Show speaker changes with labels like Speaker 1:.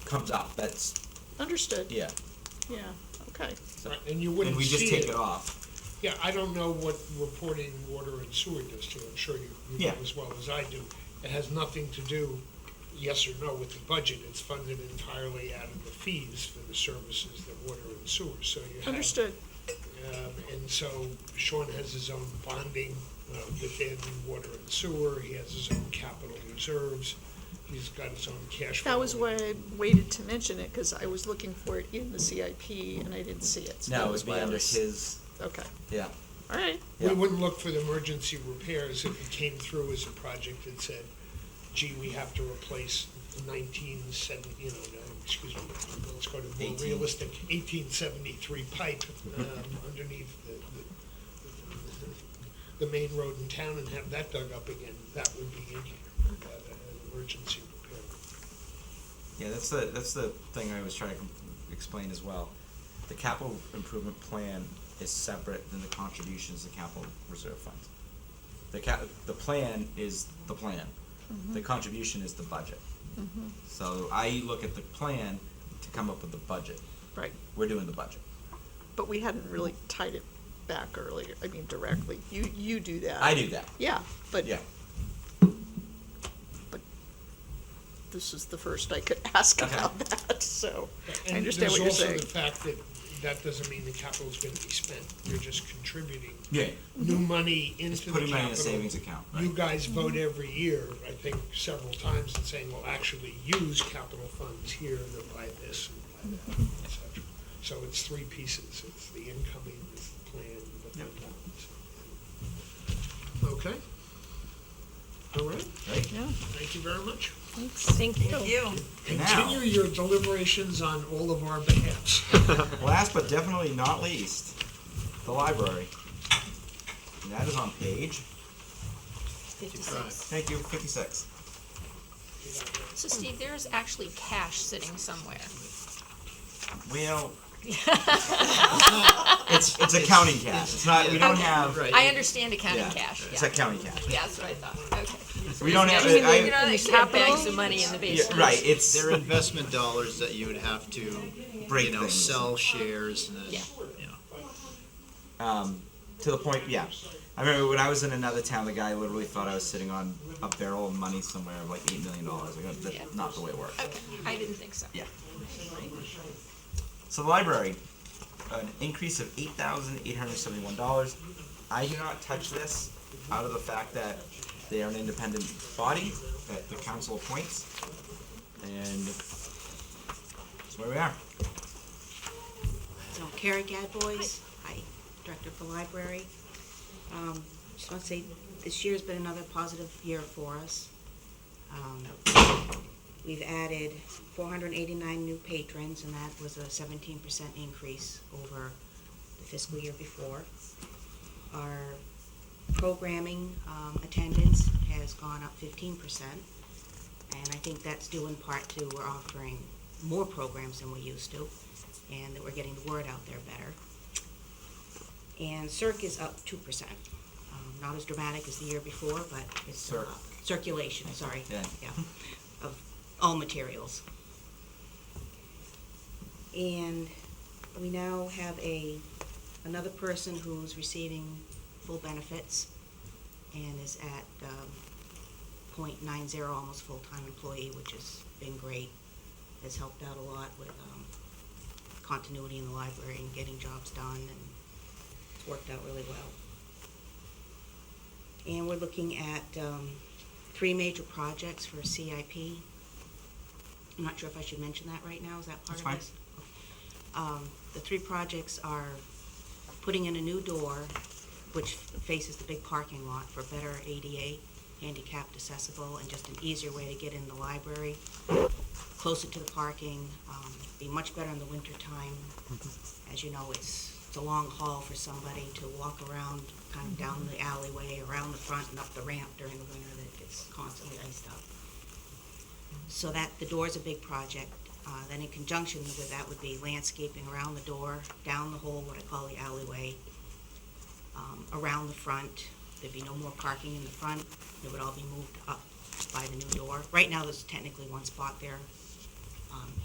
Speaker 1: comes up, that's,
Speaker 2: Understood,
Speaker 1: yeah,
Speaker 2: yeah, okay.
Speaker 1: so,
Speaker 3: Right, And you
Speaker 1: and
Speaker 3: wouldn't
Speaker 1: we just
Speaker 3: see
Speaker 1: take
Speaker 3: it.
Speaker 1: it off.
Speaker 3: Yeah, I don't know what reporting water and sewer does to it. I'm sure you you know
Speaker 1: Yeah.
Speaker 3: as well as I do. It has nothing to do, yes or no, with the budget. It's funded entirely out of the fees for the services that water and sewer, so you have.
Speaker 2: Understood,
Speaker 3: Um, And so Sean has his own bonding uh, within water and sewer, he has his own capital reserves, he's got his own cash.
Speaker 2: that was
Speaker 3: flow.
Speaker 2: why I waited to mention it, because I was looking for it in the CIP and I didn't see it. so that
Speaker 1: Now it
Speaker 2: was
Speaker 1: would be
Speaker 2: why I
Speaker 1: under
Speaker 2: was-
Speaker 1: his,
Speaker 2: Okay,
Speaker 1: yeah,
Speaker 2: all right,
Speaker 3: We
Speaker 1: yeah.
Speaker 3: wouldn't look for the emergency repairs if it came through as a project that said, gee, we have to replace nineteen seventy, you know, no, excuse me, let's go to more
Speaker 1: Eighteen.
Speaker 3: realistic, eighteen seventy-three pipe um, underneath the, the- the main road in town and have that dug up again. That would be in here, uh, an emergency repair.
Speaker 1: Yeah, that's the, that's the thing I was trying to com- explain as well. The capital improvement plan is separate than the contributions to capital reserve fund. The cap, the plan is the plan. The contribution is the budget. So I look at the plan to come up with the budget.
Speaker 2: right,
Speaker 1: We're doing the budget.
Speaker 2: but we hadn't really tied it back earlier, I mean directly, you, you do that.
Speaker 1: I do that,
Speaker 2: Yeah, but
Speaker 1: yeah.
Speaker 2: this is the first I could ask
Speaker 1: Okay.
Speaker 2: about that, so I
Speaker 3: And
Speaker 2: understand what you're
Speaker 3: There's
Speaker 2: saying.
Speaker 3: also the fact that that doesn't mean the capital's gonna be spent. You're just contributing
Speaker 1: Yeah.
Speaker 3: new money
Speaker 1: It's
Speaker 3: into the capital.
Speaker 1: putting money in the savings account, right?
Speaker 3: You guys vote every year, I think, several times, and saying, well, actually, use capital funds here, and then buy this, and buy that, et cetera. So it's three pieces, it's the incoming, it's the plan, the fund balance. Okay? All right,
Speaker 1: Right?
Speaker 2: Yeah,
Speaker 3: thank you very much.
Speaker 4: Thank you.
Speaker 1: Now-
Speaker 3: Continue your deliberations on all of our behalves.
Speaker 1: Last but definitely not least, the library. And that is on page,
Speaker 4: Fifty-six.
Speaker 1: thank you, fifty-six.
Speaker 4: So Steve, there's actually cash sitting somewhere.
Speaker 1: Well, it's, it's accounting cash, it's not, we don't have,
Speaker 4: I understand accounting
Speaker 1: Uh, yeah,
Speaker 4: cash,
Speaker 1: it's
Speaker 4: yeah.
Speaker 1: accounting cash.
Speaker 4: Yeah, that's what I thought, okay.
Speaker 1: We don't have,
Speaker 4: Actually, you
Speaker 1: I,
Speaker 4: know, they should have bags of money in the
Speaker 1: yeah,
Speaker 4: basement.
Speaker 1: right, it's,
Speaker 5: They're investment dollars that you would have to,
Speaker 1: Break
Speaker 5: you know,
Speaker 1: things.
Speaker 5: sell shares and
Speaker 4: Yeah.
Speaker 5: then, you know.
Speaker 1: um, to the point, yeah. I remember when I was in another town, the guy literally thought I was sitting on a barrel of money somewhere of like eight million dollars, I go,
Speaker 4: Yeah.
Speaker 1: that's not the way it works.
Speaker 4: Okay, I didn't think so.
Speaker 1: Yeah. So the library, an increase of eight thousand eight hundred seventy-one dollars. I do not touch this out of the fact that they are an independent body that the council appoints, and that's where we are.
Speaker 6: So Carrie Gadbois, hi, Director for Library. Um, Just want to say, this year's been another positive year for us. Um, We've added 489 new patrons, and that was a 17% increase over the fiscal year before. Our programming um, attendance has gone up 15%, and I think that's due in part to we're offering more programs than we used to and that we're getting the word out there better. And Circ is up two percent, um, not as dramatic as the year before, but it's still
Speaker 1: Circ.
Speaker 6: up. Circulation, sorry,
Speaker 1: Yeah.
Speaker 6: yeah, of all materials. And we now have a, another person who's receiving full benefits and is at, um, point nine zero, almost full-time employee, which has been great. Has helped out a lot with, um, continuity in the library and getting jobs done, and it's worked out really well. And we're looking at um, three major projects for CIP. I'm not sure if I should mention that right now, is that part
Speaker 1: That's
Speaker 6: of
Speaker 1: fine.
Speaker 6: this? Um, The three projects are putting in a new door, which faces the big parking lot for better ADA, handicapped accessible, and just an easier way to get in the library closer to the parking, um, be much better in the wintertime. As you know, it's, it's a long haul for somebody to walk around, kind of down the alleyway, around the front and up the ramp during the winter that gets constantly iced up. So that, the door's a big project. Uh, then in conjunction with that would be landscaping around the door, down the hole, what I call the alleyway, um, around the front. There'd be no more parking in the front. It would all be moved up by the new door. Right now, there's technically one spot there. Um,